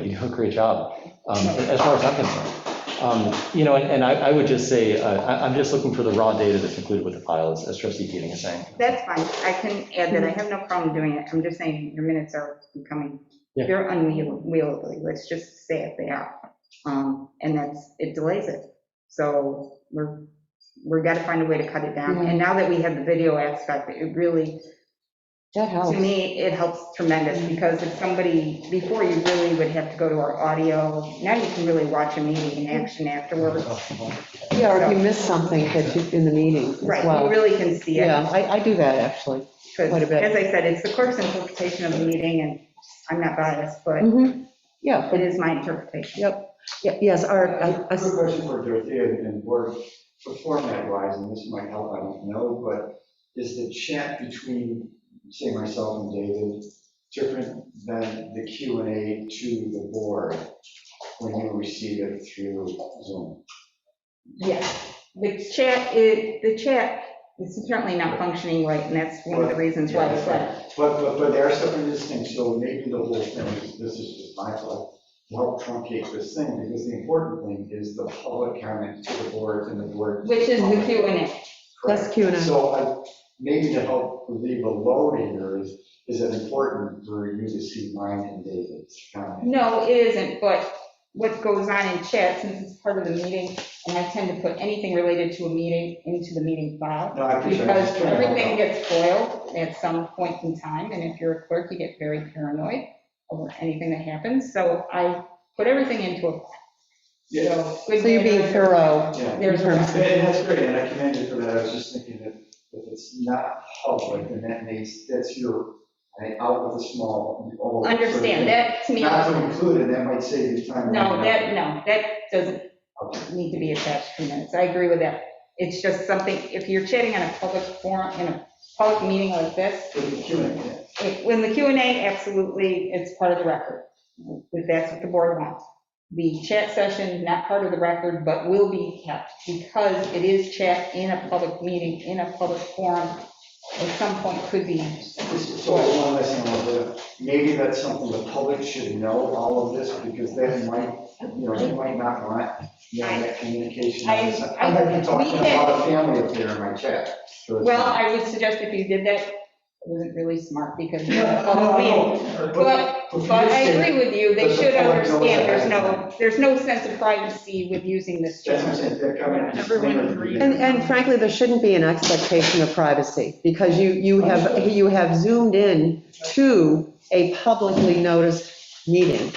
a great job, um, as far as I'm concerned. Um, You know, and- and I I would just say, uh, I- I'm just looking for the raw data that's included with the file, as- as trustee Keating is saying. That's fine, I can add that, I have no problem doing it, I'm just saying, your minutes are becoming, Yeah. they're unwieldy, let's just say it, they are. Um, And that's, it delays it, so we're, we're gotta find a way to cut it down, and now that we have the video aspect, it really, That helps. to me, it helps tremendous, because if somebody, before you really would have to go to our audio, now you can really watch a meeting in action afterwards. Oh. Yeah, or if you miss something that you, in the meeting as Right, you well. really can see it. Yeah, I, I do that, actually. Quite Because, a bit. as I said, it's the clerk's interpretation of the meeting, and I'm not biased, but Mhm. Yeah, it is my interpretation. yep, Ye- yes, our, uh, I- I I- have a question for Dorothea and and board, for format wise, and this might help, I don't know, but is the chat between, say, myself and David, different than the Q and A to the board when you receive it through Zoom? Yes. The chat, is- the chat is apparently not functioning right, and that's one of the reasons why it's left. But, but, but there are separate distinct, so maybe the whole thing, is- this is just my fault, to help truncate this thing, because the important thing is the public comment to the board and the board. Which is the Q and A. that's Q and A. So I, maybe to help relieve a load here is, is it important for you to see mine and David's comment? No, it isn't, but what goes on in chat, since it's part of the meeting, and I tend to put anything related to a meeting into the meeting file, No, I appreciate it. I'm because just trying to help everything out. gets foiled at some point in time, and if you're a clerk, you get very paranoid over anything that happens, so I put everything into a. Yeah, good So you're being manners, thorough. yeah. There's a lot. And and that's great, and I commend you for that, I was just thinking that if it's not public, then that makes, that's your, I- out with a small. oh, sort of Understand, thing. that to me, Not to no, include it, that might save you time. that, no, that doesn't need to be attached to minutes, I agree with that. It's just something, if you're chatting on a public forum, in a public meeting like this, For the Q and A. if- when the Q and A, absolutely, it's part of the record, if that's what the board wants. The chat session, not part of the record, but will be kept, because it is chat in a public meeting, in a public forum, at some point could be, This is- So one last thing, I'll do. maybe that's something the public should know, all of this, because that might, you know, they might not want, you know, that communication. I- I- I'm not even we talking can- about a family up there in my chat. so it's- well, I would suggest if you did that, it wasn't really smart, because you're in Yeah, a no, no, public meeting. no, But, for but I this thing, agree with you, they But the should public knows understand, that. there's no, there's no sense of privacy with using this That's what I'm channel. saying, that comment. is- Everyone agrees. And, and frankly, there shouldn't be an expectation of privacy, because you, you have, you have zoomed in to a publicly noticed meeting.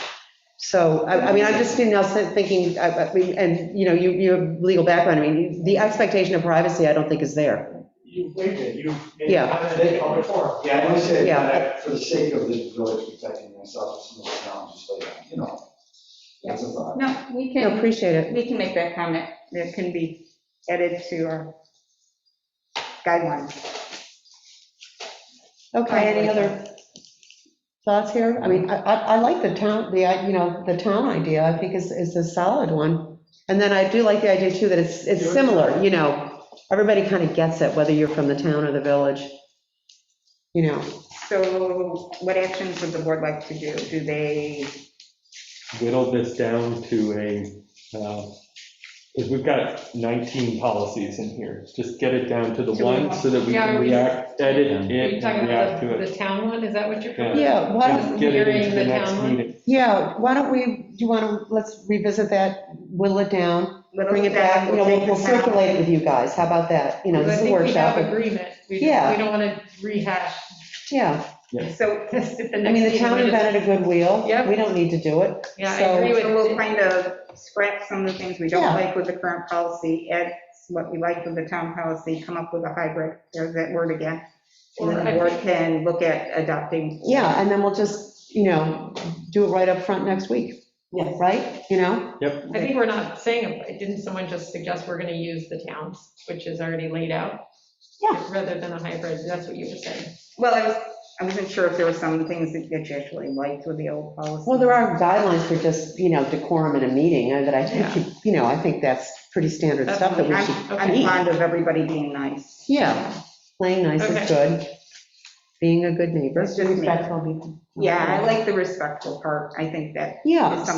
So, I, I mean, I'm just you know, thinking, I- I mean, and, you know, you, you have legal background, I mean, the expectation of privacy, I don't think is there. You waived it, you made Yeah. a comment in public forum. Yeah, I know you said, Yeah. that for the sake of this village protecting myself, it's no sound, just like, you know, that's a thought. No, we I can, appreciate it. we can make that comment, that can be added to our guidelines. Okay, any other thoughts here? I mean, I, I I like the town, the, uh, you know, the town idea, I think is, is a solid one. And then I do like the idea too that it's, it's similar, you know, everybody kind of gets it, whether you're from the town or the village. You know, So what actions would the board like to do? Do they, whittle this down to a, because we've got 19 policies in here. Just get it down to the To one one. so that we Yeah, can we- react, edit Are it, you and talking react about to the- it. the town one? Is that what you're? Yeah. yeah, why, Just Get it Mirroring into the the next town one? meeting. yeah, why don't we, do you want to, let's revisit that, whittle it down, little bring it back, you know, we'll we'll circulate it with you guys, how about that? You know, I this is a think we have workshop, agreement. We Yeah. we don't want to rehash yeah. So, this at the I mean, next the meeting. town We just- invented a good wheel, Yep. we don't need to do it. Yeah, I so- agree with so we'll it. kind of scrap some of the things we don't Yeah. like with the current policy, add what we like with the town policy, come up with a hybrid, there's that word again. And then the board can look at adopting. Yeah, and then we'll just, you know, do it right up front next week. Yes. Right, you know? I think we're not saying, it. didn't someone just suggest we're going to use the towns, which is already laid out? Yeah. Rather than a hybrid, that's what you were saying. Well, I was, I wasn't sure if there were some things that that you actually liked with the old policy. Well, there are guidelines for just, you know, decorum in a meeting, and that I think, you know, I think that's pretty standard stuff that we I'm, should I'm keep. fond of everybody being nice. Yeah, playing nice Okay. is good, being a good neighbor, It's just me. respectful. be- Yeah, I like the respectful part, I think that Yeah, It's so-